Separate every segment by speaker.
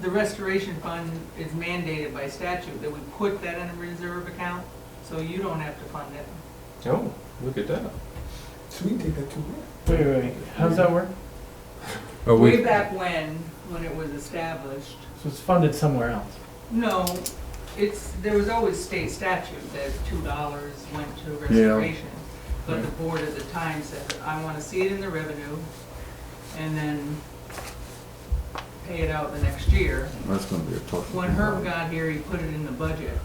Speaker 1: the restoration fund is mandated by statute that we put that in a reserve account, so you don't have to fund it.
Speaker 2: Oh, look at that.
Speaker 3: So we can take that too.
Speaker 4: Wait, wait, wait. How does that work?
Speaker 5: But
Speaker 1: Way
Speaker 5: we,
Speaker 1: back when, when it was established,
Speaker 4: So it's funded somewhere else.
Speaker 1: no, it's, there was always state statute that two dollars went to
Speaker 5: Yeah.
Speaker 1: restoration. But the board at the time said, I wanna see it in the revenue, and then pay it out the next year.
Speaker 5: that's gonna be a tough.
Speaker 1: When
Speaker 5: one.
Speaker 1: Herb got here, he put it in the budget.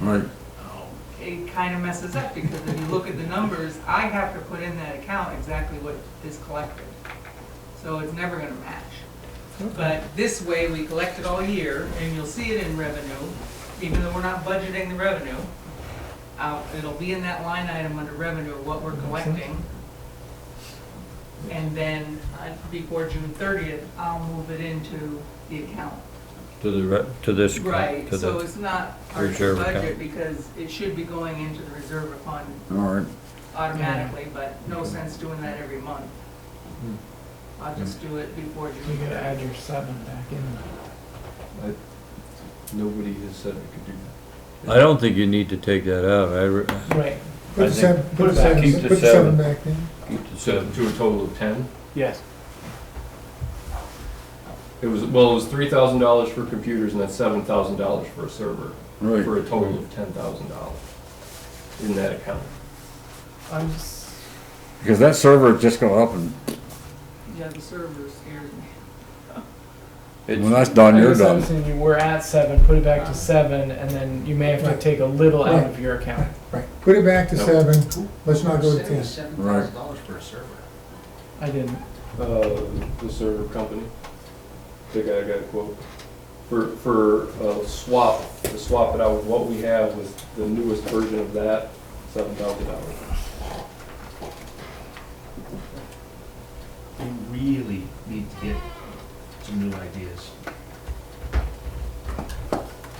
Speaker 5: Right,
Speaker 1: Oh. It kind of messes up because if you look at the numbers, I have to put in that account exactly what is collected. So it's never gonna match. But this way, we collect it all year and you'll see it in revenue, even though we're not budgeting the revenue. Uh, it'll be in that line item under revenue, what we're collecting. And then uh, before June thirtieth, I'll move it into the account.
Speaker 6: To the, re- to this. account,
Speaker 1: Right,
Speaker 6: to
Speaker 1: so
Speaker 6: the-
Speaker 1: it's not part of the
Speaker 6: reserve account.
Speaker 1: budget because it should be going into the reserve fund
Speaker 5: all right.
Speaker 1: automatically,
Speaker 4: Mm.
Speaker 1: but no sense doing that every month.
Speaker 6: Mm.
Speaker 2: Hmm.
Speaker 1: I'll just do it before
Speaker 4: You
Speaker 1: June.
Speaker 4: gotta add your seven back in.
Speaker 2: Nobody has said I could do that.
Speaker 6: I don't think you need to take that out, I, re-
Speaker 4: Right.
Speaker 3: Put the
Speaker 6: think-
Speaker 3: seven, put
Speaker 4: put
Speaker 3: the
Speaker 4: it back.
Speaker 3: seven,
Speaker 6: Keep the
Speaker 3: put the seven
Speaker 6: seven.
Speaker 3: back in.
Speaker 2: So to a total of ten?
Speaker 4: Yes.
Speaker 2: It was, well, it was three thousand dollars for computers and that's seven thousand dollars for a server,
Speaker 5: Right.
Speaker 2: for a total of ten thousand dollars in that account.
Speaker 4: I'm just,
Speaker 5: Because that server just go up and,
Speaker 1: Yeah, the server scares me.
Speaker 5: when
Speaker 6: it's,
Speaker 5: that's done,
Speaker 4: I
Speaker 5: you're
Speaker 4: guess I'm
Speaker 5: done.
Speaker 4: saying you were at seven, put it back to seven, and then you may have to
Speaker 3: Right.
Speaker 4: take a little out
Speaker 3: Right.
Speaker 4: of your account.
Speaker 3: Right, put it back to
Speaker 2: No.
Speaker 3: seven, let's not go to ten.
Speaker 7: Seven
Speaker 5: Right.
Speaker 7: thousand dollars for a server.
Speaker 4: I didn't.
Speaker 2: Uh, the server company, the guy got a quote. For, for uh, swap, to swap it out with what we have with the newest version of that, seven thousand dollars.
Speaker 7: We really need to get some new ideas.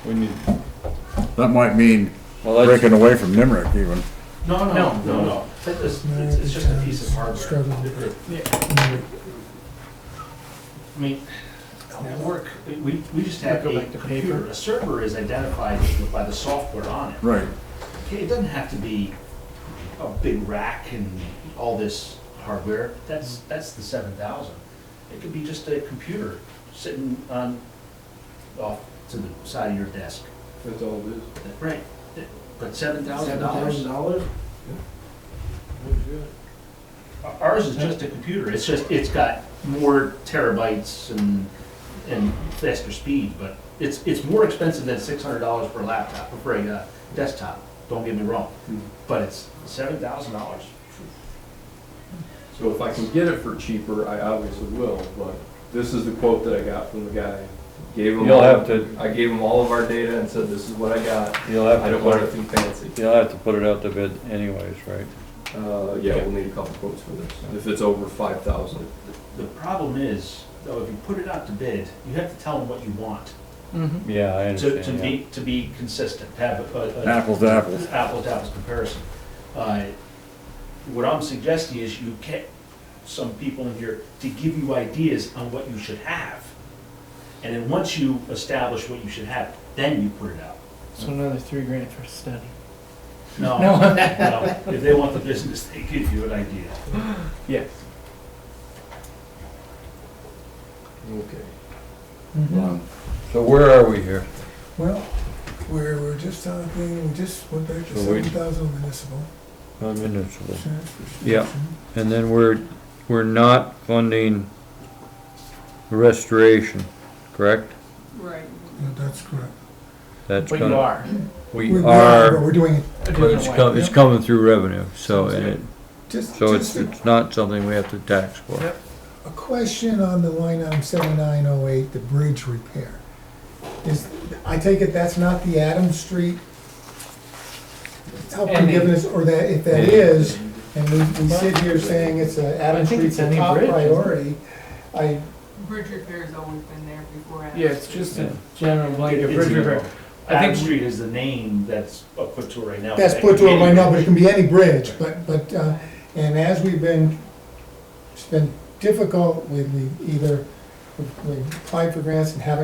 Speaker 2: We need.
Speaker 5: That might mean
Speaker 6: well, that's,
Speaker 5: breaking away from Nimerick even.
Speaker 7: No,
Speaker 4: No.
Speaker 7: No, no. It's, it's- it's just a piece of hardware.
Speaker 3: Struggling
Speaker 4: Yeah.
Speaker 7: I mean, at work, we, we just have
Speaker 4: Go
Speaker 7: a
Speaker 4: back to paper.
Speaker 7: computer, a server is identified by the software on it.
Speaker 5: Right.
Speaker 7: Okay, It doesn't have to be a big rack and all this hardware, that's, that's the seven thousand. It could be just a computer sitting on, off to the side of your desk.
Speaker 2: That's all it is.
Speaker 7: Right, but seven thousand dollars?
Speaker 3: dollars?
Speaker 7: Ours is just a computer, it's just, it's got more terabytes and, and faster speed, but it's, it's more expensive than six hundred dollars for a laptop, for a uh, desktop, don't get me wrong. But it's seven thousand dollars?
Speaker 2: So if I can get it for cheaper, I obviously will, but this is the quote that I got from the guy. Gave him.
Speaker 6: You'll
Speaker 2: all-
Speaker 6: have to-
Speaker 2: I gave him all of our data and said, this is what I got.
Speaker 6: you'll have
Speaker 2: I
Speaker 6: to
Speaker 2: don't want
Speaker 6: put it,
Speaker 2: anything fancy.
Speaker 6: you'll have to put it out to bid anyways, right?
Speaker 2: Uh, yeah, we'll need a couple quotes for this, if it's over five thousand.
Speaker 7: The problem is, though, if you put it out to bid, you have to tell them what you want
Speaker 4: Mm-hmm.
Speaker 6: Yeah, I
Speaker 7: to, to
Speaker 6: understand, yeah.
Speaker 7: be, to be consistent, to have a- a. a-
Speaker 5: Apples to apples.
Speaker 7: Apples to apples comparison. Uh, What I'm suggesting is you get some people in here to give you ideas on what you should have. And then once you establish what you should have, then you put it out.
Speaker 4: So another three grand for study.
Speaker 7: No,
Speaker 4: No.
Speaker 7: no, if they want the business, they give you an idea.
Speaker 4: Yes.
Speaker 2: Okay.
Speaker 5: Done.
Speaker 6: So where are we here?
Speaker 3: Well, we're, we're just on the thing, we just went back to
Speaker 6: So we-
Speaker 3: seven thousand municipal.
Speaker 6: On municipal.
Speaker 3: insurance.
Speaker 6: Yeah, and then we're, we're not funding restoration, correct?
Speaker 1: Right.
Speaker 3: Yeah, That's correct.
Speaker 6: That's
Speaker 4: But you
Speaker 6: gonna,
Speaker 4: are.
Speaker 6: we
Speaker 3: But
Speaker 6: are,
Speaker 3: we're doing it
Speaker 4: A
Speaker 6: it's
Speaker 4: different way.
Speaker 6: com- it's coming through revenue, so, and it,
Speaker 3: just,
Speaker 6: so it's,
Speaker 3: just
Speaker 6: it's not something we have to tax for.
Speaker 4: Yep.
Speaker 3: a question on the line item seven nine oh eight, the bridge repair. Is, I take it that's not the Adams Street help
Speaker 4: Any.
Speaker 3: forgiveness, or that, if that
Speaker 6: Any.
Speaker 3: is, and we, we sit here saying it's a,
Speaker 4: I
Speaker 3: Adams
Speaker 4: think
Speaker 3: Street's
Speaker 4: it's
Speaker 3: a
Speaker 4: any
Speaker 3: top
Speaker 4: bridge, isn't it?
Speaker 3: priority. I,
Speaker 1: Bridge repair's always been there before. I-
Speaker 4: Yeah, it's just
Speaker 6: Yeah.
Speaker 4: a general blanket.
Speaker 7: It's
Speaker 4: bridge
Speaker 7: a-
Speaker 4: repair. I
Speaker 7: Adam
Speaker 4: think-
Speaker 7: Street is the name that's uh, put to it right now.
Speaker 3: That's put to it right now, but it can be any bridge, but, but, uh, and as we've been, it's been difficult, we, we either, we we applied for grants and haven't